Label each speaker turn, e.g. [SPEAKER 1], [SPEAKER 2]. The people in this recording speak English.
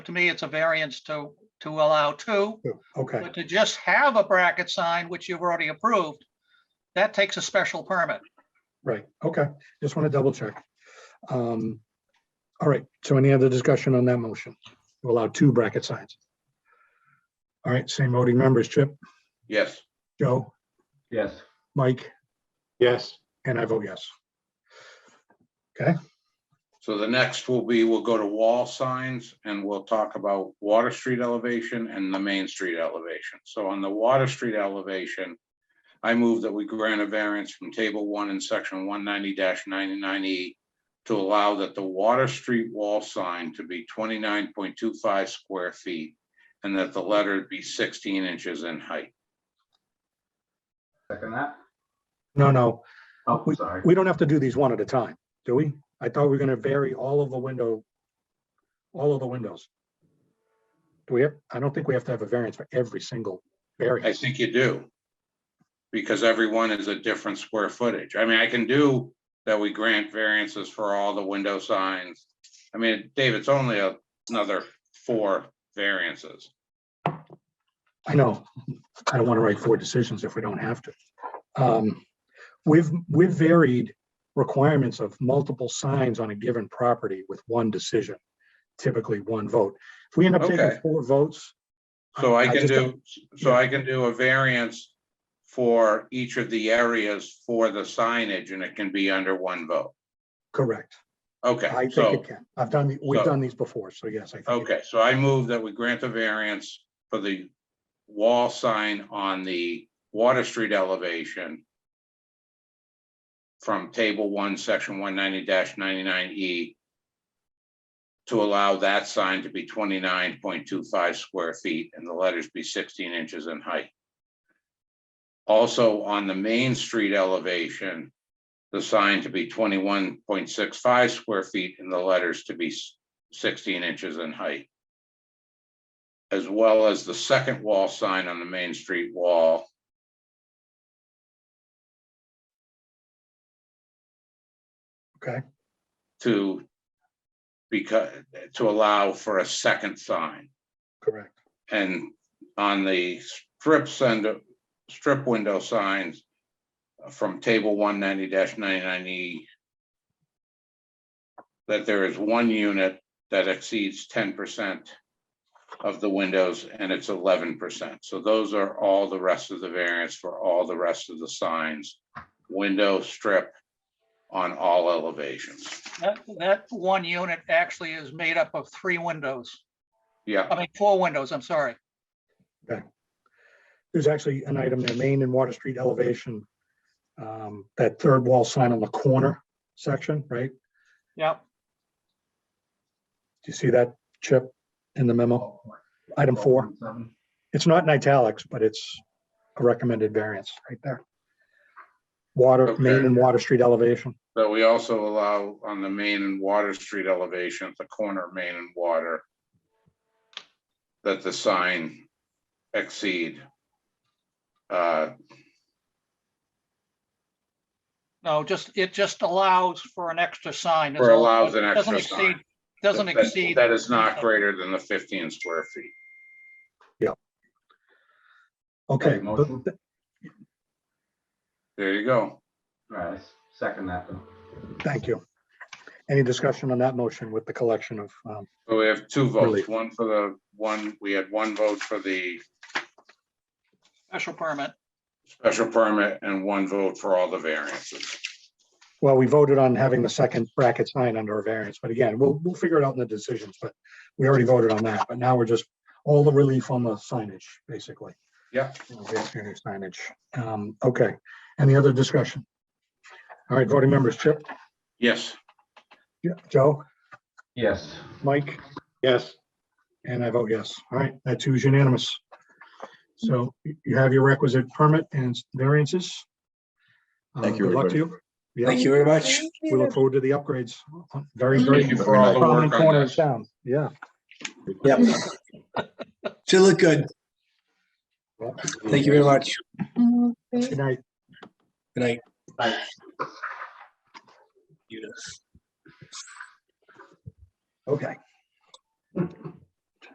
[SPEAKER 1] to me, it's a variance to, to allow two.
[SPEAKER 2] Okay,
[SPEAKER 1] But to just have a bracket sign, which you've already approved, that takes a special permit.
[SPEAKER 2] right, okay. Just want to double check. Um, All right, so any other discussion on that motion? To allow two bracket signs. All right, same voting members, Chip,
[SPEAKER 3] Yes.
[SPEAKER 2] Joe,
[SPEAKER 4] Yes.
[SPEAKER 2] Mike,
[SPEAKER 4] Yes.
[SPEAKER 2] and I vote yes.
[SPEAKER 3] So the next will be, we'll go to wall signs and we'll talk about Water Street elevation and the Main Street elevation. So on the Water Street elevation, I move that we grant a variance from table one in section one ninety ninety-nine E to allow that the Water Street wall sign to be twenty-nine point two five square feet and that the letter be sixteen inches in height.
[SPEAKER 4] Second that.
[SPEAKER 2] No, no,
[SPEAKER 4] Oh, sorry.
[SPEAKER 2] Uh, we don't have to do these one at a time, do we? I thought we were going to vary all of the window, all of the windows. Do we have, I don't think we have to have a variance for every single
[SPEAKER 3] I
[SPEAKER 2] variance.
[SPEAKER 3] think you do. Because everyone is a different square footage. I mean, I can do that we grant variances for all the window signs. I mean, Dave, it's only a- another four variances.
[SPEAKER 2] I know, I don't want to write four decisions if we don't have to. Um, We've, we've varied requirements of multiple signs on a given property with one decision, typically one vote. If we end up taking
[SPEAKER 3] Okay.
[SPEAKER 2] four votes.
[SPEAKER 3] So I can
[SPEAKER 2] just don't-
[SPEAKER 3] do, so I can do a variance for each of the areas for the signage and it can be under one vote.
[SPEAKER 2] Correct, I
[SPEAKER 3] Okay,
[SPEAKER 2] think
[SPEAKER 3] so,
[SPEAKER 2] it can. I've done, we've
[SPEAKER 3] so-
[SPEAKER 2] done these before, so yes, I think. it-
[SPEAKER 3] okay, so I move that we grant a variance for the wall sign on the Water Street elevation from table one, section one ninety ninety-nine E to allow that sign to be twenty-nine point two five square feet and the letters be sixteen inches in height. Also, on the Main Street elevation, the sign to be twenty-one point six five square feet and the letters to be s- sixteen inches in height. As well as the second wall sign on the Main Street wall
[SPEAKER 2] Okay,
[SPEAKER 3] to because, to allow for a second sign.
[SPEAKER 2] correct.
[SPEAKER 3] And on the strip sender, strip window signs from table one ninety ninety-nine E that there is one unit that exceeds ten percent of the windows and it's eleven percent. So those are all the rest of the variants for all the rest of the signs, window strip on all elevations.
[SPEAKER 1] That, that one unit actually is made up of three windows,
[SPEAKER 3] Yeah.
[SPEAKER 1] I mean, four windows, I'm sorry.
[SPEAKER 2] There's actually an item there, Main and Water Street elevation. um, That third wall sign on the corner section, right? Do
[SPEAKER 1] Yep.
[SPEAKER 2] you see that chip in the memo? Item four.
[SPEAKER 4] Seven.
[SPEAKER 2] It's not in italics, but it's a recommended variance right there. Water, Main
[SPEAKER 3] Okay.
[SPEAKER 2] and Water Street elevation.
[SPEAKER 3] But we also allow on the Main and Water Street elevation, at the corner of Main and Water, that the sign exceed. uh,
[SPEAKER 1] No, just, it just allows for an extra sign.
[SPEAKER 3] Or allows an
[SPEAKER 1] Doesn't
[SPEAKER 3] extra sign.
[SPEAKER 1] exceed- Doesn't
[SPEAKER 3] that-
[SPEAKER 1] exceed.
[SPEAKER 3] That is not greater than the fifteen square feet.
[SPEAKER 2] Okay,
[SPEAKER 4] Right, motion.
[SPEAKER 2] but
[SPEAKER 3] There you go.
[SPEAKER 4] All right, I second that then.
[SPEAKER 2] th- thank you. Any discussion on that motion with the collection of, um,
[SPEAKER 3] So we have two votes,
[SPEAKER 2] Relief.
[SPEAKER 3] one for the one, we had one vote for the
[SPEAKER 1] Special permit.
[SPEAKER 3] special permit and one vote for all the variances.
[SPEAKER 2] well, we voted on having the second bracket sign under a variance, but again, we'll, we'll figure it out in the decisions, but we already voted on that, but now we're just all the relief on the signage, basically.
[SPEAKER 3] Yeah.
[SPEAKER 2] Variance Signage. Um, okay, any other discussion? All right, voting members, Chip,
[SPEAKER 3] Yes,
[SPEAKER 2] Yeah, Joe?
[SPEAKER 4] Yes.
[SPEAKER 2] Mike? Yes. And I vote yes. All right, that too is unanimous. So you you have your requisite permit and variances. Uh,
[SPEAKER 5] Thank you,
[SPEAKER 2] Good luck to you.
[SPEAKER 5] everybody.
[SPEAKER 2] Yeah,
[SPEAKER 5] Thank you very much.
[SPEAKER 2] we look forward to the upgrades. Very, very
[SPEAKER 3] thank you for all the
[SPEAKER 2] prominent
[SPEAKER 3] work on
[SPEAKER 2] corner of
[SPEAKER 3] this.
[SPEAKER 2] town. Yeah.
[SPEAKER 5] Yep. Should look good.
[SPEAKER 2] Well,
[SPEAKER 5] Thank you very much.
[SPEAKER 2] Good night.
[SPEAKER 5] Good night.
[SPEAKER 4] Bye.
[SPEAKER 5] Beautiful.
[SPEAKER 2] Okay.